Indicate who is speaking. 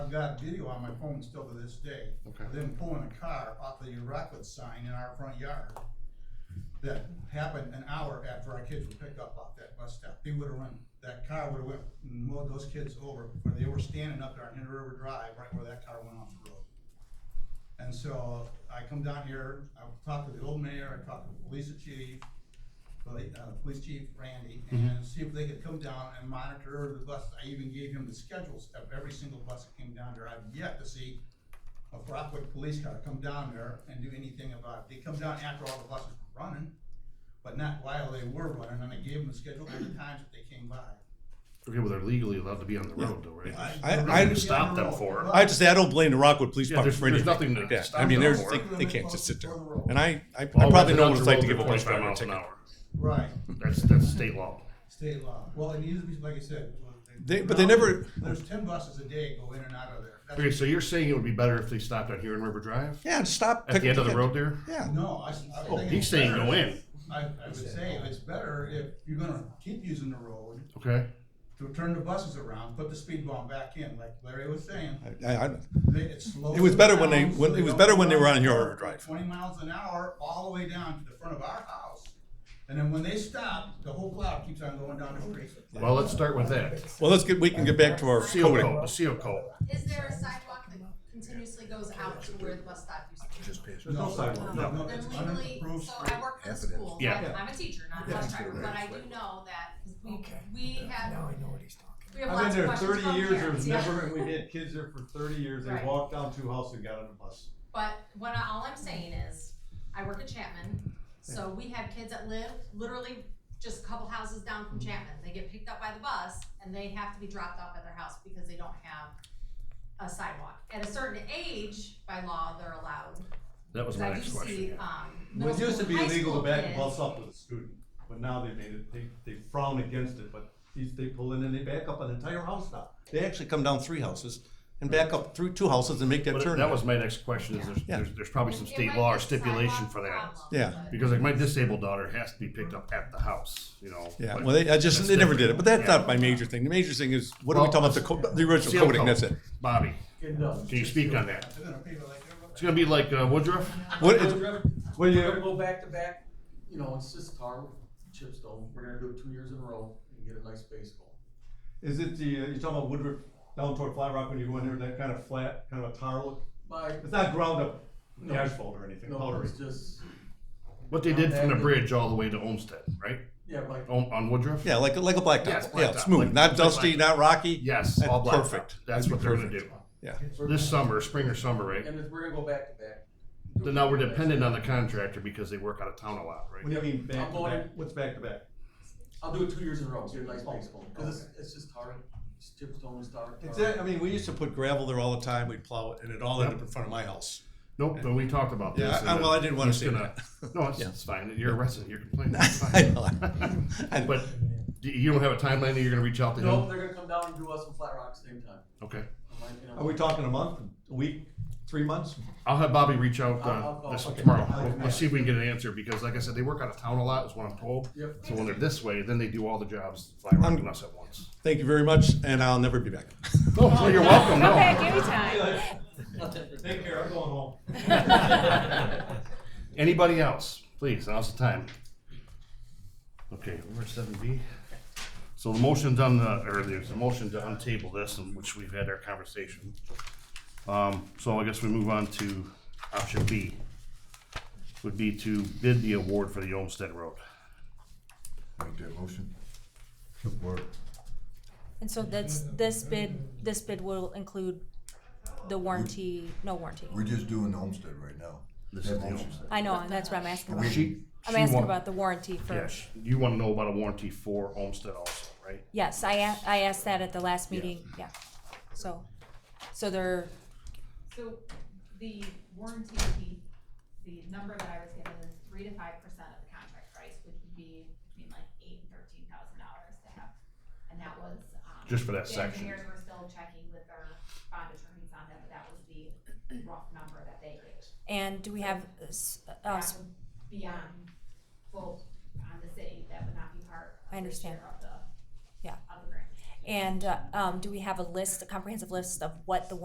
Speaker 1: I've got video on my phone still to this day.
Speaker 2: Okay.
Speaker 1: of Them pulling a car off the Rockwood sign in our front yard. That happened an hour after our kids were picked up off that bus stop. They would've run, that car would've went, and mowed those kids over, where they were standing up there on Inter River Drive, right where that car went off the road. And so I come down here, I talked to the old mayor, I talked to the police chief, poli- uh, police chief Randy,
Speaker 2: Mm-hmm.
Speaker 1: and see if they could come down and monitor the bus. I even gave him the schedules of every single bus that came down there. I've yet to see a Rockwood police car come down there and do anything about it. They come down after all the buses were running, but not while they were running, and I gave them the schedule of the times that they came by.
Speaker 2: Okay, well, they're legally allowed to be on the road, though, right?
Speaker 1: I-
Speaker 2: We're not
Speaker 1: I-
Speaker 2: gonna stop them for it.
Speaker 3: I have to say, I don't blame the Rockwood Police
Speaker 2: Yeah,
Speaker 3: Department
Speaker 2: there's-
Speaker 3: for
Speaker 2: there's nothing
Speaker 3: anything
Speaker 2: to
Speaker 3: like that.
Speaker 2: stop
Speaker 3: I
Speaker 2: them
Speaker 3: mean, there's,
Speaker 2: for.
Speaker 3: they, they can't just sit there.
Speaker 1: Further over.
Speaker 3: And I, I, I
Speaker 2: All
Speaker 3: probably know
Speaker 2: residents
Speaker 3: what it's
Speaker 2: are
Speaker 3: like to
Speaker 2: over
Speaker 3: give a
Speaker 2: 25
Speaker 3: bus driver a
Speaker 2: miles an
Speaker 3: ticket.
Speaker 2: hour.
Speaker 1: Right,
Speaker 2: That's that's state law.
Speaker 1: state law. Well, it needs to be, like I said.
Speaker 3: They- but they never-
Speaker 1: There's ten buses a day go in and out of there. That's-
Speaker 2: Okay, so you're saying it would be better if they stopped out here in River Drive
Speaker 3: Yeah, just stop.
Speaker 2: at
Speaker 3: pick
Speaker 2: the end of the
Speaker 3: up
Speaker 2: road there.
Speaker 3: Yeah.
Speaker 1: No, I, s- I
Speaker 2: Oh,
Speaker 1: would think.
Speaker 2: he's
Speaker 1: it's
Speaker 2: saying
Speaker 1: better.
Speaker 2: go in.
Speaker 1: I, I would say it's better if you're gonna keep using the road
Speaker 2: Okay.
Speaker 1: to turn the buses around, put the speed bump back in, like Larry was saying.
Speaker 3: I, I,
Speaker 1: They- It slows
Speaker 3: It was better when they-
Speaker 1: down so
Speaker 3: when- it
Speaker 1: they
Speaker 3: was
Speaker 1: don't
Speaker 3: better when they
Speaker 1: run
Speaker 3: were on Yard Drive.
Speaker 1: Twenty miles an hour all the way down to the front of our house. And then when they stop, the whole cloud keeps on going down the street.
Speaker 2: Well, let's start with that.
Speaker 3: well, let's get, we can get back to our
Speaker 2: CO
Speaker 3: coding.
Speaker 2: code. The CO code.
Speaker 4: Is there a sidewalk that continuously goes out to where the bus stop used to be?
Speaker 1: There's no
Speaker 5: Um,
Speaker 1: sidewalk. No, no, it's
Speaker 4: Then legally,
Speaker 1: unimproved
Speaker 4: so
Speaker 1: street.
Speaker 4: I work for a school,
Speaker 2: Yeah.
Speaker 4: I'm, I'm a teacher, not a bus driver, but I do know that we, we have,
Speaker 6: I know what he's talking
Speaker 4: we have
Speaker 5: I've
Speaker 4: lots
Speaker 5: been
Speaker 4: of questions
Speaker 5: there thirty
Speaker 4: from
Speaker 5: years, there
Speaker 4: parents,
Speaker 5: was
Speaker 4: yeah.
Speaker 5: never, we had kids there for thirty years, they
Speaker 4: Right.
Speaker 5: walked down two houses and got on a bus.
Speaker 4: But what I, all I'm saying is, I work at Chapman, so we have kids that live literally just a couple houses down
Speaker 5: Mm-hmm.
Speaker 4: from Chapman. They get picked up by the bus and they have to be dropped off at their house because they don't have a sidewalk. At a certain age, by law, they're allowed.
Speaker 2: That was my
Speaker 4: I do
Speaker 2: next
Speaker 4: see,
Speaker 2: question.
Speaker 4: um, middle
Speaker 5: It used to
Speaker 4: school
Speaker 5: be
Speaker 4: and high
Speaker 5: illegal to
Speaker 4: school
Speaker 5: back a
Speaker 4: kids-
Speaker 5: bus up with a student, but now they made it, they, they frown against it, but these, they pull in and they back up an entire house now.
Speaker 3: They actually come down three houses and back up through two houses and make that
Speaker 2: But
Speaker 3: turn.
Speaker 2: that was my next question. Is there's,
Speaker 3: Yeah.
Speaker 2: there's, there's probably some
Speaker 4: It
Speaker 2: state
Speaker 4: might
Speaker 2: law
Speaker 4: be
Speaker 2: or
Speaker 4: a
Speaker 2: stipulation
Speaker 4: sidewalk
Speaker 2: for that.
Speaker 4: problem,
Speaker 3: Yeah.
Speaker 4: but-
Speaker 2: Because like my disabled daughter has to be picked up at the house, you know.
Speaker 3: Yeah,
Speaker 2: but-
Speaker 3: well, they, I just,
Speaker 2: That's
Speaker 3: they never did it,
Speaker 2: different.
Speaker 3: but that's
Speaker 2: Yeah.
Speaker 3: not my major thing. The major thing is, what are we
Speaker 2: Well,
Speaker 3: talking about, the co- the original
Speaker 2: CO
Speaker 3: coding, that's it.
Speaker 2: Bobby,
Speaker 5: Good enough.
Speaker 2: can you speak on that?
Speaker 1: They're gonna pave it like everybody.
Speaker 2: It's gonna be like uh, Woodruff.
Speaker 3: What,
Speaker 7: We're
Speaker 3: it-
Speaker 7: gonna
Speaker 5: What do you,
Speaker 7: go back to back, you know, it's just tar, chip stone, we're gonna do it two years in a row and get a nice base goal.
Speaker 5: is it the, you're talking about Woodruff down toward Flat Rock when you go in there, that kind of flat, kind of a tar look?
Speaker 7: By,
Speaker 5: It's not ground up
Speaker 7: No.
Speaker 5: asphalt or anything,
Speaker 7: no,
Speaker 5: powdery.
Speaker 7: it's just,
Speaker 2: What they did from the bridge all the way to Olmsted, right?
Speaker 7: yeah, by,
Speaker 2: On, on Woodruff?
Speaker 3: yeah, like, like a
Speaker 2: Yeah,
Speaker 3: blacktop,
Speaker 2: it's
Speaker 3: yeah,
Speaker 2: blacktop,
Speaker 3: smooth,
Speaker 2: like-
Speaker 3: not
Speaker 2: like
Speaker 3: dusty,
Speaker 2: blacktop.
Speaker 3: not rocky.
Speaker 2: Yes,
Speaker 3: That's
Speaker 2: all black.
Speaker 3: perfect.
Speaker 2: That's what they're gonna do. This summer, spring or summer, right?
Speaker 7: and it's, we're gonna go back to back.
Speaker 2: Then now we're dependent on the contractor because they work out of town a lot,
Speaker 5: What
Speaker 2: right?
Speaker 5: do you mean back
Speaker 7: I'm
Speaker 5: to
Speaker 7: going
Speaker 5: back?
Speaker 7: in-
Speaker 5: What's back to back?
Speaker 7: I'll do it two years in a row, get a
Speaker 2: Oh,
Speaker 7: nice base goal, cause it's, it's just tar, it's chip stone and tar. tar.
Speaker 3: It's that, I mean, we used to put gravel there all the time, we'd plow it, and it all ended up in front of my house.
Speaker 2: Nope, but we talked about this.
Speaker 3: Yeah, I-
Speaker 2: and
Speaker 3: I- well, I
Speaker 2: then
Speaker 3: didn't wanna
Speaker 2: he's
Speaker 3: say
Speaker 2: uh, gonna- No, it's,
Speaker 3: Yeah.
Speaker 2: it's fine. You're a resident, you're complaining. It's
Speaker 3: I
Speaker 2: fine.
Speaker 3: know. I know.
Speaker 2: But do- you don't have a timeline that you're gonna reach out to
Speaker 7: No,
Speaker 2: him?
Speaker 7: they're gonna come down and do us in Flat Rock same time.
Speaker 2: Okay.
Speaker 7: I'm like, you know,
Speaker 5: Are we talking a month, a week, three months?
Speaker 2: I'll have Bobby reach out
Speaker 7: I'll- I'll
Speaker 2: uh,
Speaker 7: call.
Speaker 2: this
Speaker 7: Okay.
Speaker 2: tomorrow.
Speaker 5: I'll
Speaker 2: We'll-
Speaker 5: call.
Speaker 2: We'll see if we can get an answer because like I said, they work out of town a lot is what I'm told.
Speaker 7: Yep.
Speaker 2: So when they're this way, then they do all the jobs, fly around and us at once.
Speaker 3: Thank you very much, and I'll never be back.
Speaker 2: No, so you're welcome, no.
Speaker 8: Come back anytime.
Speaker 5: Take care, I'm going home.
Speaker 2: Anybody else? Please, now's the time. Okay, we're seven B. So the motion's on the, or there's a motion to untable this, in which we've had our conversation. Um, so I guess we move on to option B. Would be to bid the award for the Olmsted Road.
Speaker 6: Make that motion. Support.
Speaker 8: And so that's, this bid, this bid will include the warranty, no warranty.
Speaker 6: We're just doing the homestead right now.
Speaker 2: This
Speaker 6: That
Speaker 2: is the
Speaker 6: motion.
Speaker 2: Olmsted.
Speaker 8: I know, and that's what I'm asking
Speaker 6: We-
Speaker 8: about.
Speaker 2: She,
Speaker 8: I'm
Speaker 2: she
Speaker 8: asking
Speaker 2: want-
Speaker 8: about the warranty
Speaker 2: Yeah,
Speaker 8: first.
Speaker 2: sh- you wanna know about a warranty for Olmsted also, right?
Speaker 8: Yes, I a- I asked that at the last meeting, yeah. So, so they're,
Speaker 4: So the warranty fee, the number that I was given is three to five percent of the contract price, which would be between like eight and thirteen thousand dollars to have. And that was, um.
Speaker 2: Just for that
Speaker 4: the
Speaker 2: section.
Speaker 4: Engineers were still checking with their bond attorneys on that, but that was the rough number that they gave.
Speaker 8: and do we have, uh, s- uh,
Speaker 4: That
Speaker 8: s-
Speaker 4: would be on, well, on the city, that would not be part
Speaker 8: I
Speaker 4: of the
Speaker 8: understand.
Speaker 4: share of the,
Speaker 8: Yeah.
Speaker 4: of the grant.
Speaker 8: and, uh, um, do we have a list, a comprehensive list of what the